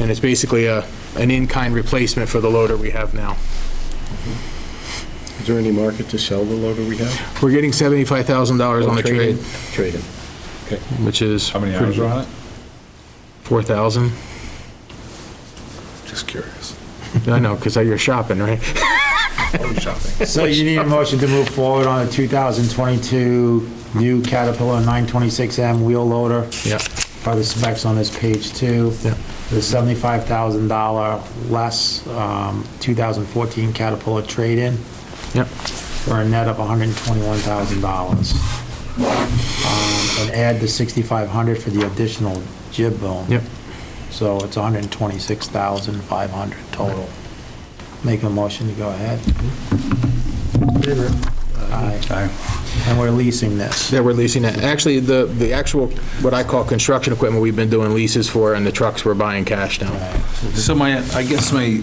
And it's basically a, an in-kind replacement for the loader we have now. Is there any market to sell the loader we have? We're getting $75,000 on the trade, Trade it. which is How many hours are on it? 4,000. Just curious. I know, because you're shopping, right? Always shopping. So you need a motion to move forward on a 2022 new Caterpillar 926M wheel loader, Yeah, by the specs on this page two. Yeah. The $75,000 less um, 2014 Caterpillar trade-in yeah. for a net of $121,000. Um, And add the 6,500 for the additional jib boom. Yep. So it's 126,500 total. Make a motion to go ahead. Aye. And we're leasing this. Yeah, we're leasing it. Actually, the, the actual, what I call construction equipment, we've been doing leases for, and the trucks we're buying cash now. So my, I guess my,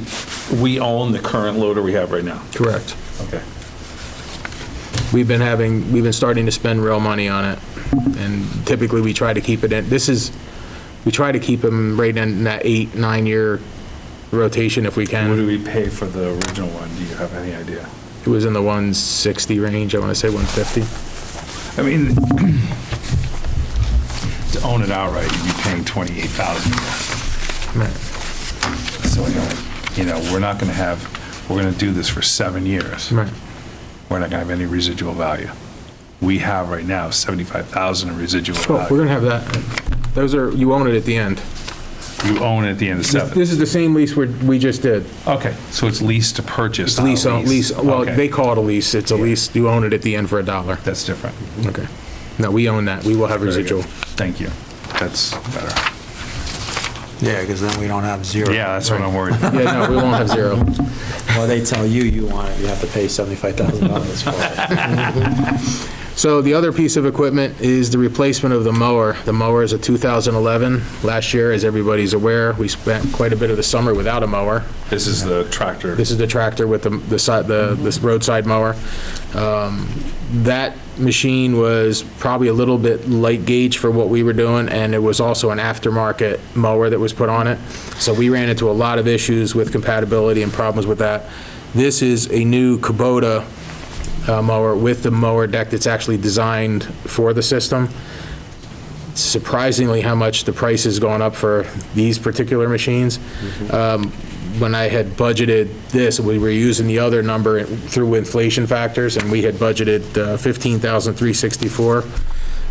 we own the current loader we have right now. Correct. Okay. We've been having, we've been starting to spend real money on it, and typically we try to keep it in, this is, we try to keep them right in that eight, nine-year rotation if we What do can. we pay for the original one? Do you have any idea? It was in the 160 range, I want to say 150. I mean, to own it outright, you'd be paying 28,000. Right, So, you know, you know, we're not going to have, we're going to do this for seven years. right. We're not going to have any residual value. We have right now 75,000 in residual Cool, we're value. gonna have that. Those are, you own it at the end. You own it at the end of seven. This is the same lease we, we just did. Okay, so it's lease to purchase. It's not lease, on- lease, well, Oh, Okay, they call it a lease, it's a lease, you own it at the end for a dollar. That's different. Okay. No, we own that, we will have Very good. residual. Thank you. That's better. Yeah, because then we don't have zero. Yeah, that's what I'm worried. Yeah, no, we won't have zero. Well, they tell you you want it, you have to pay $75,000 for it. So the other piece of equipment is the replacement of the mower. The mower is a 2011. Last year, as everybody's aware, we spent quite a bit of the summer without a mower. This is the tractor. This is the tractor with the, the side, the, this roadside mower. Um, That machine was probably a little bit light gauge for what we were doing, and it was also an aftermarket mower that was put on it. So we ran into a lot of issues with compatibility and problems with that. This is a new Kubota uh, mower with the mower deck that's actually designed for the system. Surprisingly, how much the price has gone up for these particular machines. Um, When I had budgeted this, we were using the other number through inflation factors, and we had budgeted uh, 15,364.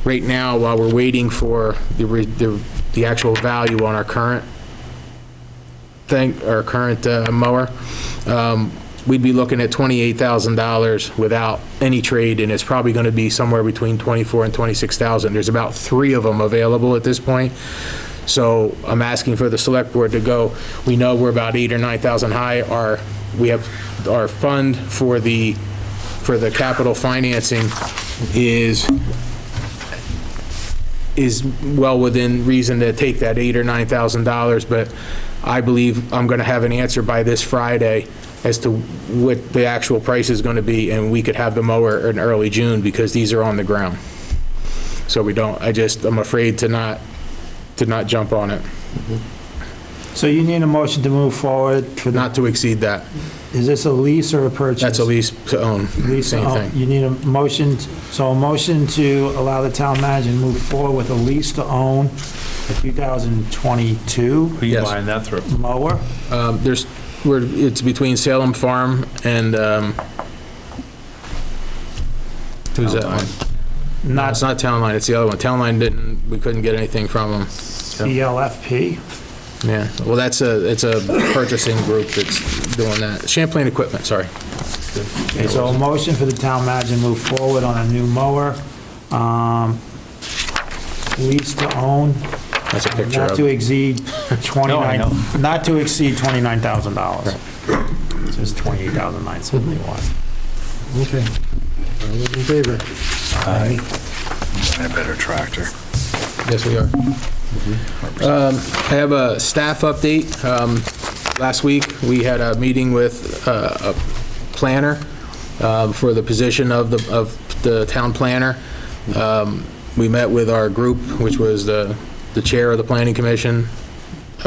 Right now, while we're waiting for the re- the, the actual value on our current thing, our current uh, mower, um, we'd be looking at $28,000 without any trade, and it's probably going to be somewhere between 24 and 26,000. There's about three of them available at this point. So I'm asking for the select board to go, we know we're about 8 or 9,000 high. Our, we have, our fund for the, for the capital financing is is well within reason to take that eight or nine thousand dollars, but I believe I'm gonna have an answer by this Friday as to what the actual price is gonna be, and we could have the mower in early June, because these are on the ground. So we don't, I just, I'm afraid to not, to not jump on it, So you need a motion to move forward for the, not to exceed that. is this a lease or a purchase? That's a lease to own, Lease, same oh, thing. You need a motion, so a motion to allow the town manager to move forward with a lease to own a 2022 Who you Yes. buying that through? mower. Um, there's, we're, it's between Salem Farm and, um, who's that one? No, Not it's not Town Line, it's the other one. Town Line didn't, we couldn't get anything from them. CLFP. Yeah, well, that's a, it's a purchasing group that's doing that. Champlain Equipment, sorry. Okay, so a motion for the town manager to move forward on a new mower, um, lease to own, That's a picture not to of. exceed No, I 29, not to exceed $29,000. So it's $28,971. Okay. All those in favor? A better tractor. Yes, we are. Um, I have a staff update. Um, Last week, we had a meeting with uh, a planner um, for the position of the, of the town planner. Um, We met with our group, which was the, the chair of the planning commission,